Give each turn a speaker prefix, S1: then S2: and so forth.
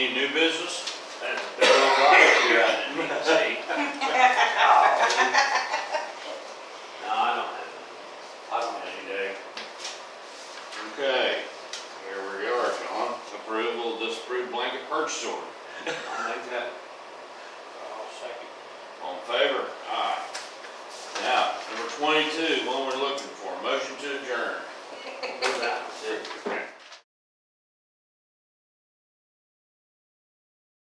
S1: new business?
S2: That's been all right here, I didn't even see. No, I don't have, I don't have any day.
S1: Okay, here we are, John. Approval, disapproved blanket purchase order.
S2: I'll make that.
S1: All in favor? Aye. Now, number twenty-two, one we're looking